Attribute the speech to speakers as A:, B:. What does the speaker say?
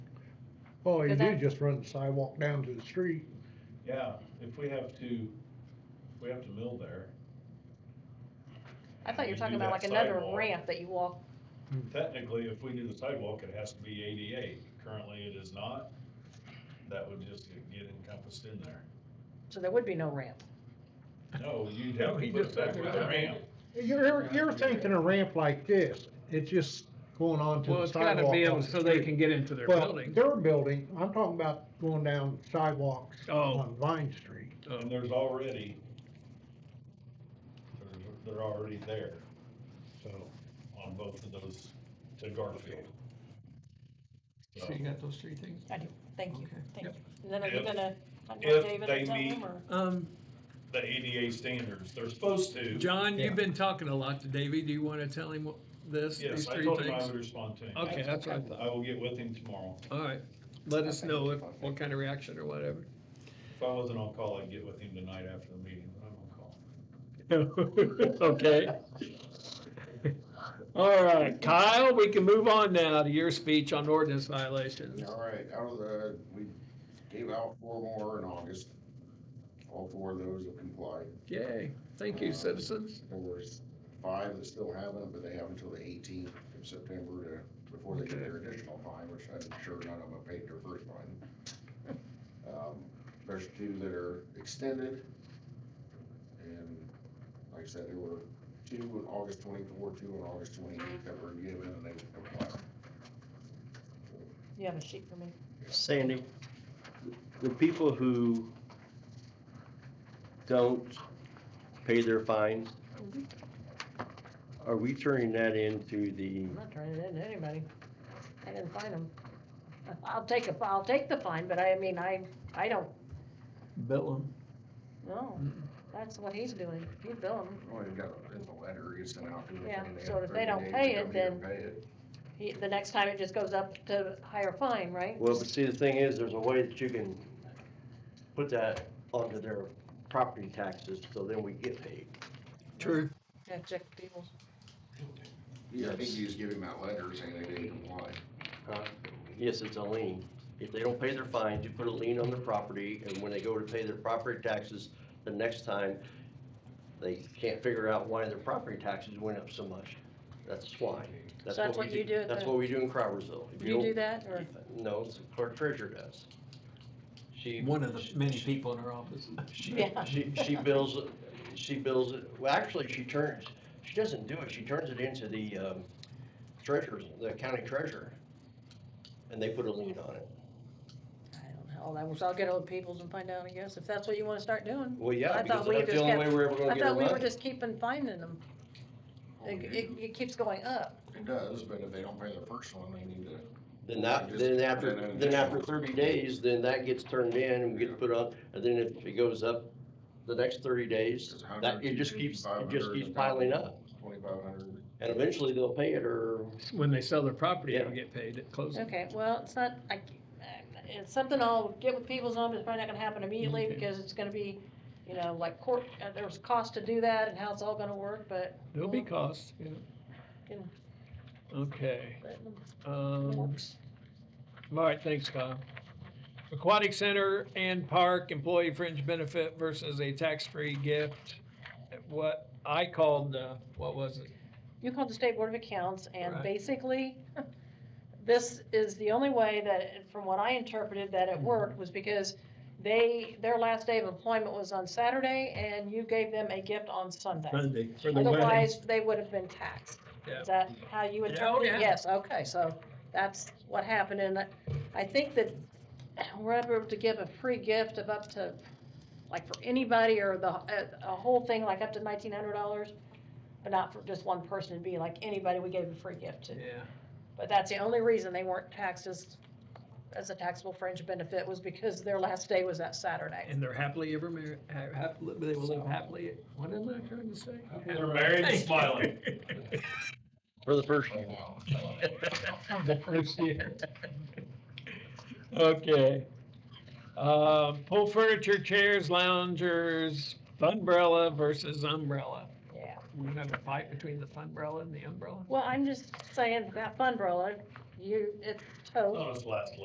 A: Well, you
B: Does
A: do
B: that-
A: just run the sidewalk down to the street.
C: Yeah, if we have to, if we have to mill there.
B: I thought you were
C: We
B: talking
C: do
B: about like
C: that
B: another
C: sidewalk.
B: ramp that you walk,
C: Technically, if we do the sidewalk, it has to be ADA. Currently, it is not. That would just get encompassed in there.
B: so there would be no ramp.
C: No, you'd
D: No,
C: have to
D: he
C: put it
D: just
C: back
D: talked
C: with
D: about
C: a
D: it.
C: ramp.
A: You're, you're thinking a ramp like this, it's just going on to
D: Well,
A: the
D: it's gotta
A: sidewalk.
D: be
A: on
D: able,
A: the
D: so they
A: street.
D: can get into their
A: Well,
D: building.
A: their building, I'm talking about going down sidewalks
D: Oh.
A: on Vine Street.
D: Oh.
C: And there's already, there's- they're already there, so, on both of those to Garfield. So,
E: So you got those three things?
B: I do, thank you,
E: Okay.
B: thank you. And then are you
C: If-
B: gonna, I know
C: if
B: David
C: they
B: and tell
C: meet-
B: him or?
D: Um,
C: The ADA standards, they're supposed to.
D: John,
A: Yeah.
D: you've been talking a lot to Davey. Do you wanna tell him what- this, these
C: Yes, I
D: three
C: told him I
D: things?
C: would respond to him.
D: Okay, that's what I thought.
C: I will get with him tomorrow.
D: All right. Let us know if, what kind of reaction or whatever.
C: If I wasn't on call, I'd get with him tonight after the meeting, but I'm on call.
D: Okay. All right, Kyle, we can move on now to your speech on ordinance violations.
F: All right, out of the, we gave out four more in August. All four of those have complied.
D: Yay, thank you, citizens.
F: There was five that still haven't, but they have until the eighteenth of September to, before they get their additional fine, which I'm sure none of them have paid their first fine. Um, There's two that are extended. And like I said, there were two on August twenty-four, two on August twenty-eight that were given and they complied.
B: You have a sheet for me?
G: Sandy, the people who don't pay their fines,
B: Mhm.
G: are we turning that into the,
B: I'm not turning it in to anybody. I didn't find them. I'll take a, I'll take the fine, but I mean, I, I don't,
D: Bill
E: um,
B: no, that's what he's doing. He bill them.
F: Well, you've got, a- in the letter, you sent out. to them,
B: Yeah,
F: and they
B: so
F: have
B: if they
F: 30
B: don't
F: days
B: pay
F: to
B: it,
F: come here and
B: then-
F: pay it.
B: He, the next time it just goes up to higher fine, right?
G: well, but see, the thing is, there's a way that you can put that onto their property taxes, so then we get paid.
D: True.
B: Yeah, check people's.
F: Yeah, I think you just give him that letter saying they didn't comply.
G: Uh, Yes, it's a lien. If they don't pay their fines, you put a lien on their property, and when they go to pay their property taxes, the next time, they can't figure out why their property taxes went up so much. That's why.
B: So that's what
G: we
B: you do at
G: That's
B: the-
G: what we do in Crowersville. If
B: You do
G: don't-
B: that or?
G: No, it's the clerk treasurer does. She.
E: One of the
G: she-
E: many people in our office.
G: She,
B: Yeah.
G: she, she bills, it- she bills, it- well, actually, she turns, she doesn't do it, she turns it into the um, treasurer's, the county treasurer. And they put a lien on it.
B: I don't know. All that was, I'll get old peoples and find out, I guess, if that's what you wanna start doing.
G: Well,
B: I
G: yeah, because
B: thought we
G: that's the
B: just
G: only
B: kept-
G: way we're ever gonna
B: I
G: get our
B: thought we were
G: money.
B: just keeping finding them.
F: Oh,
B: It, it, it keeps going up.
F: It does, but if they don't pay the first one, they need to.
G: Then that,
F: just-
G: then after,
F: then an
G: then after
F: additional-
G: thirty days, then that gets turned in and gets
F: Yeah.
G: put up, and then if it goes up the next thirty days,
F: It's a hundred,
G: that, it just
F: two
G: keeps,
F: fifty,
G: it just
F: 500,
G: keeps
F: a
G: piling
F: thousand.
G: up.
F: Twenty-five hundred.
G: And eventually they'll pay it or
D: When they sell their property,
G: Yeah.
D: they get paid at closing.
B: Okay, well, it's not, I, uh, it's something I'll get with people's on, but it's probably not gonna happen immediately
D: Okay.
B: because it's gonna be, you know, like court, uh, there's cost to do that and how it's all gonna work, but
D: There'll be costs, yeah.
B: Can-
D: Okay,
B: but it
D: um,
B: works.
D: all right, thanks, Kyle. Aquatic Center and Park Employee Fringe Benefit versus a tax-free gift. What I called, uh, what was it?
B: You called the State Board of Accounts and
D: Right.
B: basically, this is the only way that, from what I interpreted, that it
D: Mm-hmm.
B: worked was because they, their last day of employment was on Saturday and you gave them a gift on Sunday.
D: Sunday for
B: Otherwise, they would have been taxed.
D: Yeah.
B: Is that how you
D: Yeah,
B: interpret
D: yeah.
B: it? Yes, okay, so that's what happened, and I- I think that we're able to give a free gift of up to, like for anybody or the, a, a whole thing, like up to nineteen hundred dollars, but not for just one person, it'd be like anybody we gave a free gift to.
D: Yeah,
B: But that's the only reason they weren't taxed as, as a taxable fringe benefit was because their last day was that Saturday.
D: and they're happily ever married, happily, they will live happily, what am I trying to say?
C: They're married and smiling.
G: for the first
F: Oh,
D: The first year. Okay. Uh, pull furniture, chairs, loungers, funbrella versus umbrella.
B: Yeah.
D: We're gonna have a fight between the funbrella and the umbrella?
B: Well, I'm just saying, that fun, Roland, you, it's total.
C: Not us last